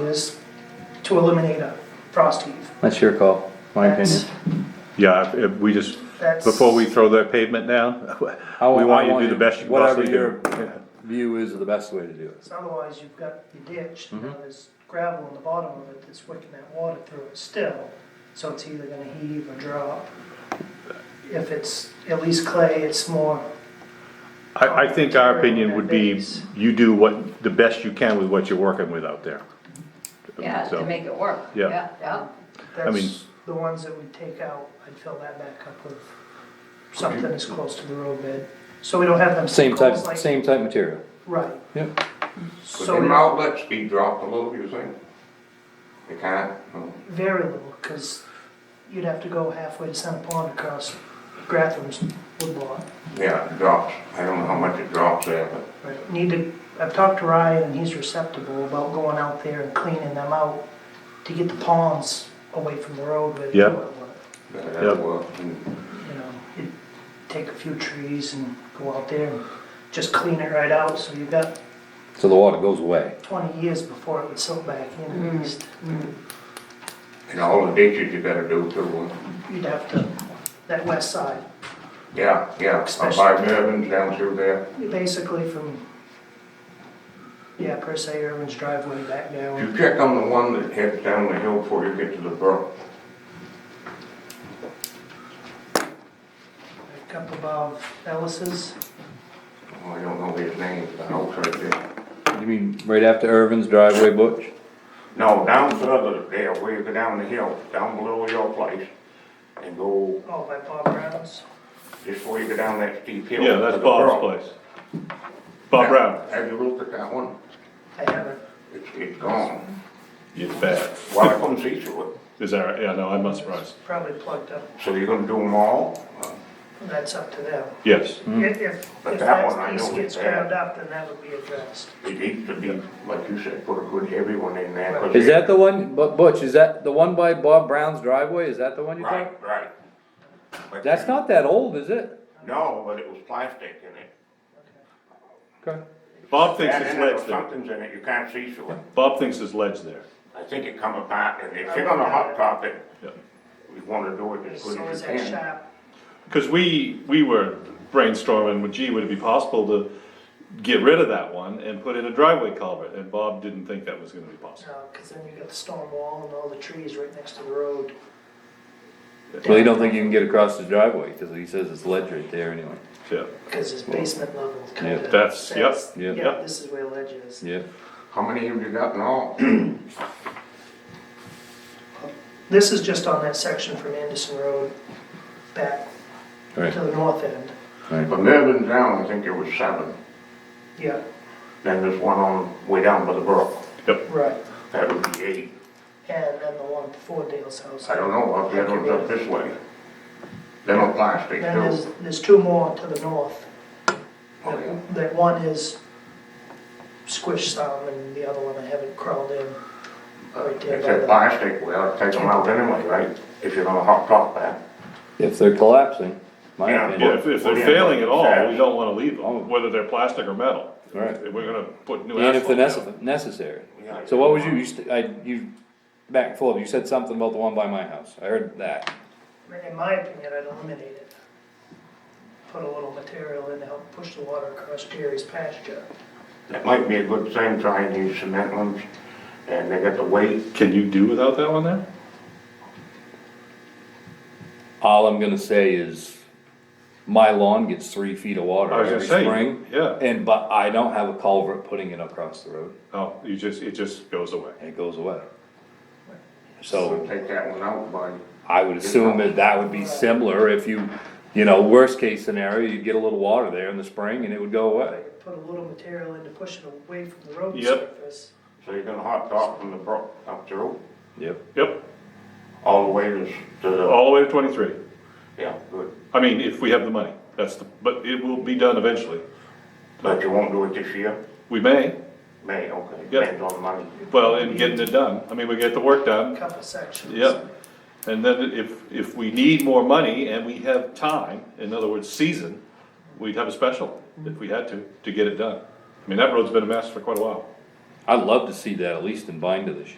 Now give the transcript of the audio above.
is to eliminate a frost heave. That's your call, my opinion. That's- Yeah, if- if we just, That's- before we throw that pavement down, I we want you I to do the best you whatever possibly your uh, do. View is the best way to do it. So Otherwise, you've got the ditch, and Mm-hmm. now there's gravel on the bottom of it that's wicking that water through it still. So it's either gonna heave or drop. If it's at least clay, it's more, I, I think our opinion would be, you do what, the best you can with what you're working with out there. Yeah, to So- make it work. Yeah. Yeah, mean- that's the ones that we take out, I'd fill that back up with something that's close to the road bed. So we don't have them. Same sinkholes type, like- same type material. Right. Yep. Could So them we- outlets be dropped a little, you think? They can't, no. very little, cause you'd have to go halfway to Center Pond across Gratham's woodlot. yeah, it drops, I don't know how much it drops there, but Right, need to, I've talked to Ryan and he's receptive about going out there and cleaning them out to get the ponds away from the road where they Yeah. were, that'll work. And You know, you take a few trees and go out there and just clean it right out, so you've got So the water goes away. twenty years before it would silt back in at least. and all the ditches you gotta do too. You'd have to, that west side, Yeah, yeah, up by Mervin's down through there. basically from, yeah, per se, Irvin's driveway back If down. You check on the one that heads down the hill before you get to the brook. Like Up above Ellis's, Oh, I don't know his name, the house right there. You mean right after Irvin's driveway, Butch? No, down further there, where you go down the hill, down below your place, and go, oh, by Bob Brown's, just before you go down that steep hill. Yeah, to that's the Bob's brook. place. Bob Brown. Have you looked at that one? I haven't It's, it's gone. It's bad. Well, I couldn't see through it. Is that right? Yeah, no, I'm not surprised. probably plugged up So you're gonna do them all? That's up to them. Yes. If, if, Hmm. But if that one that I piece know gets is bad. ground up, then that would be addressed. It needs to be, like you said, put a good heavy one in there. 'cause Is that the one, Bu- Butch, is that the one by Bob Brown's driveway? Is that the one you think? Right, right. But- That's not that old, is it? No, but it was plastic in it. Okay. Bob thinks That it's in it or ledge there. something's in it, you can't see through it. Bob thinks it's ledge there. I think it come apart, and if you're gonna hot top it, Yeah. we wanna do it as good So is as you that can. shop, Cause we, we were brainstorming, well, gee, would it be possible to get rid of that one and put in a driveway culvert? And Bob didn't think that was gonna be possible. uh, cause then you got the stone wall and all the trees right next to the road. Well, you don't think you can get across the driveway, cause he says it's ledge right there anyway. Yeah. Cause it's basement level kinda. Yeah, that's- yep, says, yep. Yeah, this is where ledge is. Yeah. How many have you got in all? This is just on that section from Anderson Road back Right, to the north end. right. From Mervyn down, I think there was seven. Yeah, Then there's one on, way down by the brook, right. that would be eight. And then the one before Dale's house. I don't know, up the other one's up this way. They're not plastic, Then there's, too. there's two more to the north. Oh, yeah. That one is squished some and the other one I haven't crawled in. Right there If by they're the- plastic, we ought to take them out anyway, right? If you're gonna hot top that. If they're collapsing, my Yeah. Yeah, opinion. if, if they're failing at all, we don't wanna leave Oh. them, whether they're plastic or metal. Right. We're gonna put new And if the asphalt down. necess- necessary. Yeah. So what was you, you, st- I, you, back and forth, you said something about the one by my house, I heard that. In my opinion, I'd eliminate it. Put a little material in to help push the water across Jerry's pasture. That might be a good thing, trying these cement ones, and they got the weight. Can you do without that one there? All I'm gonna say is, my lawn gets three feet of water I was gonna every say, spring. yeah. And, but I don't have a culvert putting it across the road, Oh, you just, it just goes away. and it goes away. So, Take that one out, buddy. I would assume that that would be similar if you, you know, worst case scenario, you'd get a little water there in the spring and it would go away. Put a little material in to push it away from the road Yep. surface. So you're gonna hot top from the brook up through, Yep. Yep, all the way to, s- to the, all the way to twenty-three. yeah, good. I mean, if we have the money, that's the, but it will be done eventually. But you won't do it this year? We may, May, okay, Yeah. depends on the money. well, in getting it done, I mean, we get the work A done, Couple sections. yep. And then if, if we need more money and we have time, in other words, season, we'd have a special, if we had to, to get it done. I mean, that road's been a mess for quite a while. I'd love to see that at least in binder this year.